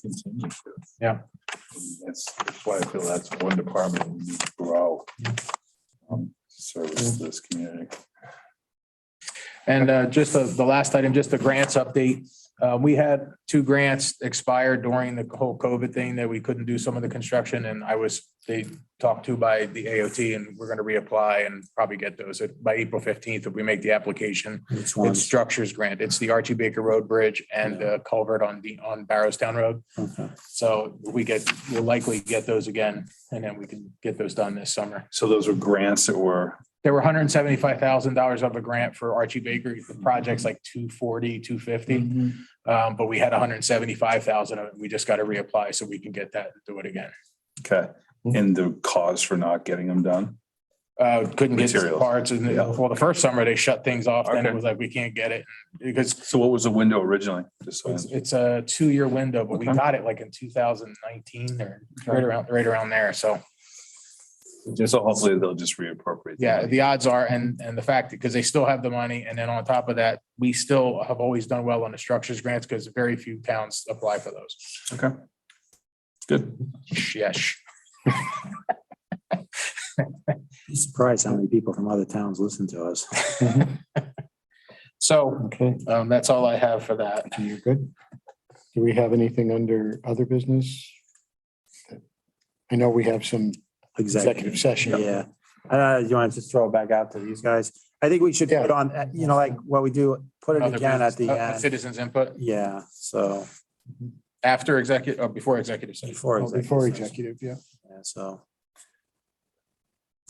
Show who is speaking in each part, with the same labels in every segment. Speaker 1: continue to.
Speaker 2: Yeah.
Speaker 1: That's, that's why I feel that's one department we need to grow. um, to
Speaker 2: Mm-hmm.
Speaker 1: Service this community.
Speaker 2: And uh, just the, the last item, just the grants update. Uh, We had two grants expire during the whole COVID thing that we couldn't do some of the construction and I was, they talked to by the AOT and we're going to reapply and probably get those by April fifteenth if we make the application.
Speaker 3: Which
Speaker 2: It's
Speaker 3: ones?
Speaker 2: structures grant. It's the Archie Baker Road Bridge and the culvert on the, on Barrowstown Road.
Speaker 3: Okay.
Speaker 2: So we get, we'll likely get those again and then we can get those done this summer.
Speaker 1: So those were grants that were,
Speaker 2: There were hundred and seventy-five thousand dollars of a grant for Archie Bakery. The project's like 240, 250,
Speaker 1: Mm-hmm.
Speaker 2: Um, but we had hundred and seventy-five thousand of it. We just got to reapply so we can get that and do it again.
Speaker 1: okay,
Speaker 2: Mm-hmm.
Speaker 1: and the cause for not getting them done.
Speaker 2: Uh, couldn't get
Speaker 1: Materials.
Speaker 2: parts and,
Speaker 1: Yeah.
Speaker 2: well, the first summer they shut things off and it
Speaker 1: Okay.
Speaker 2: was like, we can't get it because
Speaker 1: So what was the window originally? Just so I
Speaker 2: it's, it's a two-year window, but we
Speaker 1: Okay.
Speaker 2: got it like in two thousand nineteen or right around, right around there. So
Speaker 1: Just so hopefully they'll just reappropriate.
Speaker 2: Yeah,
Speaker 1: them.
Speaker 2: the odds are, and, and the fact, because they still have the money, and then on top of that, we still have always done well on the structures grants, because very few towns apply for those.
Speaker 1: Okay. Good.
Speaker 2: Yes,
Speaker 3: I'm Surprised how many people from other towns listen to us.
Speaker 2: so,
Speaker 4: Okay,
Speaker 2: um, that's all I have for that.
Speaker 4: you're good. Do we have anything under other business? I know we have some executive
Speaker 3: Exactly.
Speaker 4: session.
Speaker 3: Yeah. Uh, you want to just throw it back out to these guys? I think we should
Speaker 4: Yeah.
Speaker 3: put on, uh, you know, like what we do, put it
Speaker 2: Other
Speaker 3: again at the
Speaker 2: business- uh,
Speaker 3: end.
Speaker 2: Citizens input
Speaker 3: Yeah, so
Speaker 2: after executive, or before executive session.
Speaker 3: before.
Speaker 4: Oh, Before
Speaker 3: session.
Speaker 4: executive, yeah.
Speaker 3: Yeah, so.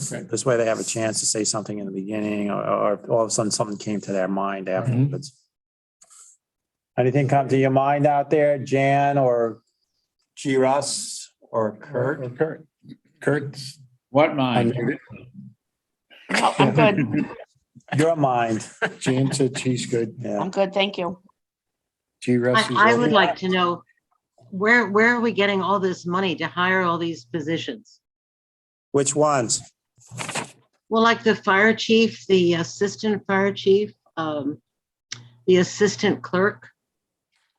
Speaker 2: Okay.
Speaker 3: This way they have a chance to say something in the beginning or, or if all of a sudden something came to their mind
Speaker 4: Mm-hmm.
Speaker 3: afterwards. Anything come to your mind out there, Jan or G Russ or Kurt?
Speaker 2: Kurt. Kurt's.
Speaker 5: What mine?
Speaker 6: No, Oh, I'm good.
Speaker 3: Your mind,
Speaker 4: Jan said she's good.
Speaker 3: yeah.
Speaker 6: I'm good. Thank you.
Speaker 4: G Russ is.
Speaker 7: I, I would
Speaker 4: on.
Speaker 7: like to know, where, where are we getting all this money to hire all these positions?
Speaker 3: Which ones?
Speaker 7: Well, like the fire chief, the assistant fire chief, um, the assistant clerk.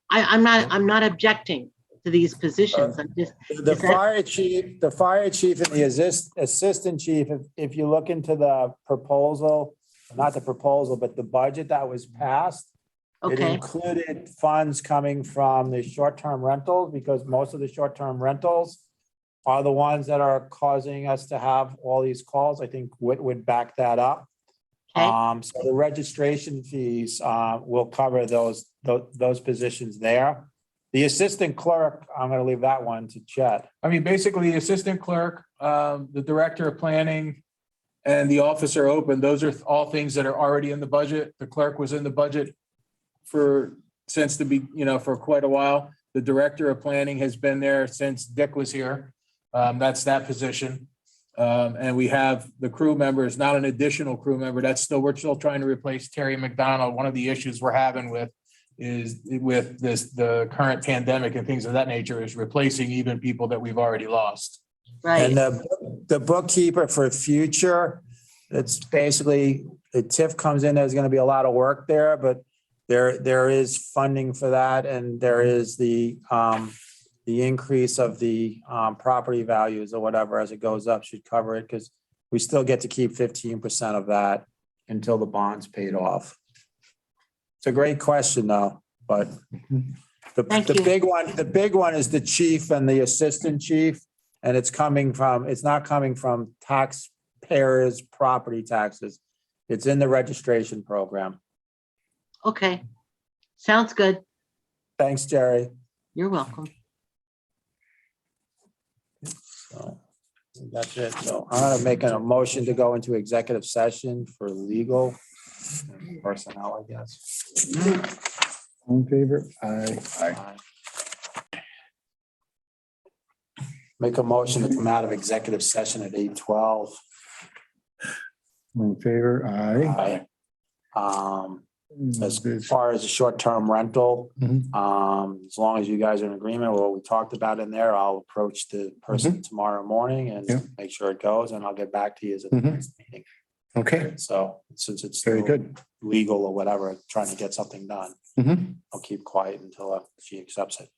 Speaker 7: I, I'm not, I'm not objecting to these positions. I'm just,
Speaker 3: The
Speaker 7: Is that-
Speaker 3: fire chief, the fire chief and the assist, assistant chief, if, if you look into the proposal, not the proposal, but the budget that was passed, It
Speaker 7: okay,
Speaker 3: included funds coming from the short-term rentals, because most of the short-term rentals are the ones that are causing us to have all these calls. I think Whit would back that up.
Speaker 7: Okay.
Speaker 3: Um, so the registration fees, uh, will cover those, tho- those positions there. The assistant clerk, I'm gonna leave that one to Chet.
Speaker 2: I mean, basically the assistant clerk, um, the director of planning and the officer open, those are all things that are already in the budget. The clerk was in the budget for, since the be, you know, for quite a while. The director of planning has been there since Dick was here. Um, that's that position. Um, and we have the crew member is not an additional crew member. That's still, we're still trying to replace Terry McDonald. One of the issues we're having with is with this, the current pandemic and things of that nature is replacing even people that we've already lost.
Speaker 7: right.
Speaker 3: And uh, the, the bookkeeper for future, it's basically, the TIF comes in, there's gonna be a lot of work there, but there, there is funding for that and there is the, um, the increase of the, um, property values or whatever as it goes up should cover it, because we still get to keep fifteen percent of that until the bond's paid off. It's a great question though, but the,
Speaker 7: Thank
Speaker 3: the
Speaker 7: you.
Speaker 3: big one, the big one is the chief and the assistant chief. And it's coming from, it's not coming from taxpayers' property taxes. It's in the registration program.
Speaker 7: Okay. Sounds good.
Speaker 3: Thanks, Jerry.
Speaker 7: You're welcome.
Speaker 3: So, That's it. So I'm gonna make a motion to go into executive session for legal and personnel, I guess.
Speaker 4: All In favor, aye.
Speaker 3: Make a motion to come out of executive session at eight twelve.
Speaker 4: All In favor, aye.
Speaker 3: Um, as
Speaker 4: This-
Speaker 3: far as the short-term rental,
Speaker 4: Mhm.
Speaker 3: um, as long as you guys are in agreement with what we talked about in there, I'll approach the person tomorrow morning
Speaker 4: Mm-hmm. Yeah.
Speaker 3: and make sure it goes, and I'll get back to you as a
Speaker 4: Mhm.
Speaker 3: next meeting.
Speaker 4: Okay,
Speaker 3: So since it's
Speaker 4: very
Speaker 3: still
Speaker 4: good.
Speaker 3: legal or whatever, trying to get something done,
Speaker 4: Mhm.
Speaker 3: I'll keep quiet until uh, she accepts it.